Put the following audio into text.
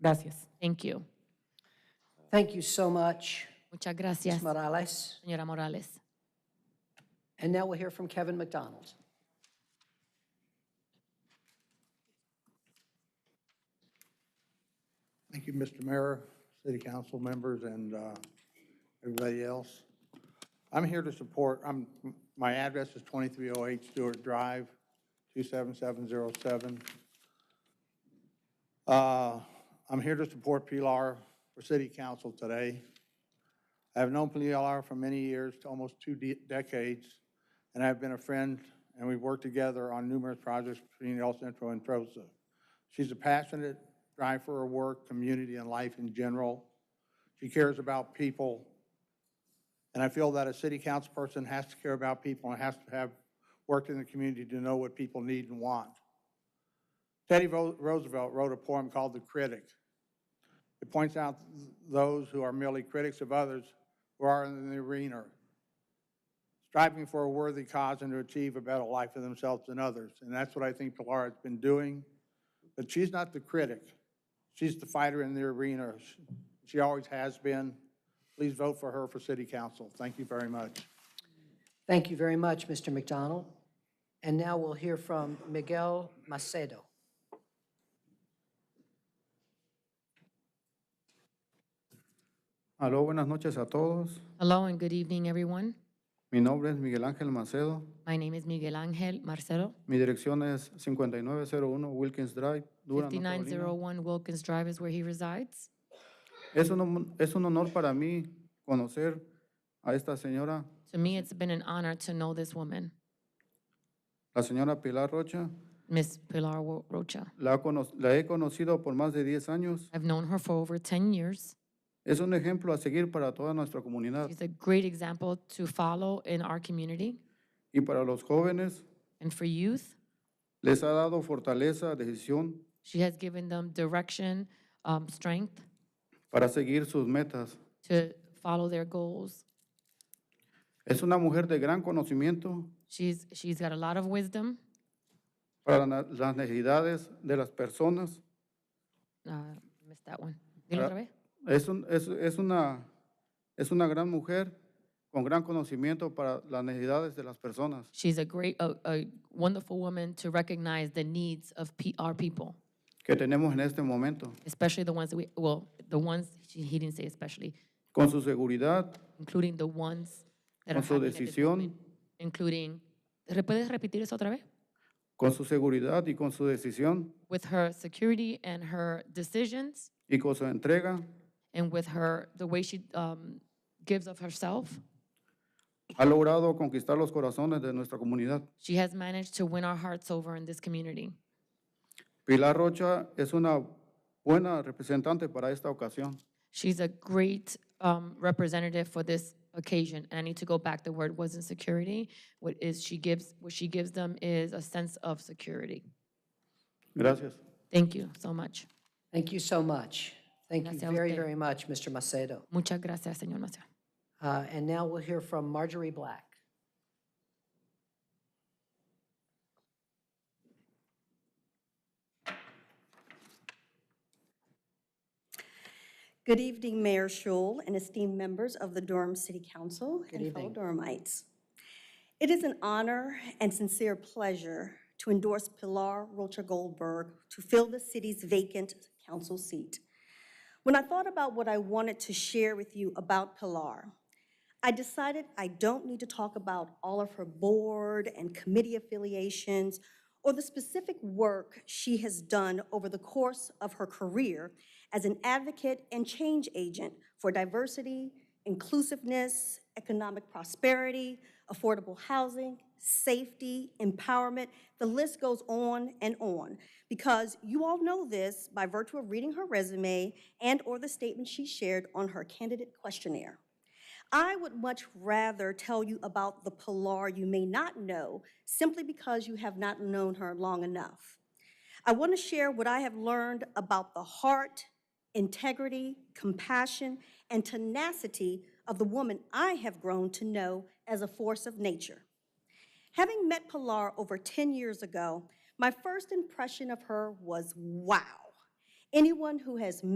Gracias. Thank you. Thank you so much, Muchas gracias, Ms. Morales. señora Morales. And now we'll hear from Kevin McDonald. Thank you, Mr. Mayor, city council members, and uh, everybody else. I'm here to support, I'm, my address is 2308 Stewart Drive, 27707. Uh, I'm here to support Pilar for city council today. I have known Pilar for many years, almost two de- decades, and I've been a friend, and we've worked together on numerous projects between El Centro and Trosa. She's a passionate, drive for her work, community, and life in general. She cares about people. And I feel that a city council person has to care about people and has to have worked in the community to know what people need and want. Teddy Ro- Roosevelt wrote a poem called The Critic. It points out those who are merely critics of others who are in the arena, striving for a worthy cause and to achieve a better life for themselves and others. And that's what I think Pilar has been doing. But she's not the critic. She's the fighter in the arena. She always has been. Please vote for her for city council. Thank you very much. Thank you very much, Mr. McDonald. And now we'll hear from Miguel Macedo. Aló, buenas noches a todos. Hello and good evening, everyone. Mi nombre es Miguel Ángel Macedo. My name is Miguel Angel Marcelo. Mi dirección es 5901 Wilkins Drive, Durham, North Carolina. 5901 Wilkins Drive is where he resides. Es un, hon- es un honor para mí conocer a esta señora, To me, it's been an honor to know this woman, la señora Pilar Rocha. Miss Pilar Wo- Rocha. La, cono- la he conocido por más de 10 años. I've known her for over 10 years. Es un ejemplo a seguir para toda nuestra comunidad She's a great example to follow in our community. y para los jóvenes. And for youth, Les ha dado fortaleza, decisión she has given them direction, um, strength para seguir sus metas. to follow their goals. Es una mujer de gran conocimiento She's, she's got a lot of wisdom para na- las necesidades de las personas Uh, missed that one. Dilo otra vez. Es, un- es- es una, es una gran mujer con gran conocimiento para las necesidades de las personas. She's a great, a, a wonderful woman to recognize the needs of P, our people, que tenemos en este momento. especially the ones that we, well, the ones, she, he didn't say especially, Con su seguridad, including the ones that are con su having a disability, decisión, including, ¿Re- ¿puedes repetir eso otra vez? con su seguridad y con su decisión With her security and her decisions y con su entrega, and with her, the way she, um, gives of herself, ha logrado conquistar los corazones de nuestra comunidad. she has managed to win our hearts over in this community. Pilar Rocha es una buena representante para esta ocasión. She's a great um, representative for this occasion. And I need to go back. The word wasn't security. What is she gives? What she gives them is a sense of security. Gracias. Thank you so much. Thank you so much. Thank you Gracias a very, usted. very much, Mr. Macedo. Muchas gracias, señor Maciel. Uh, And now we'll hear from Marjorie Black. Good evening, Mayor Shul and esteemed members of the Durham City Council and fellow Durhamites. It is an honor and sincere pleasure to endorse Pilar Rocha Goldberg to fill the city's vacant council seat. When I thought about what I wanted to share with you about Pilar, I decided I don't need to talk about all of her board and committee affiliations or the specific work she has done over the course of her career as an advocate and change agent for diversity, inclusiveness, economic prosperity, affordable housing, safety, empowerment. The list goes on and on because you all know this by virtue of reading her resume and/or the statement she shared on her candidate questionnaire. I would much rather tell you about the Pilar you may not know simply because you have not known her long enough. I want to share what I have learned about the heart, integrity, compassion, and tenacity of the woman I have grown to know as a force of nature. Having met Pilar over 10 years ago, my first impression of her was wow. Anyone who has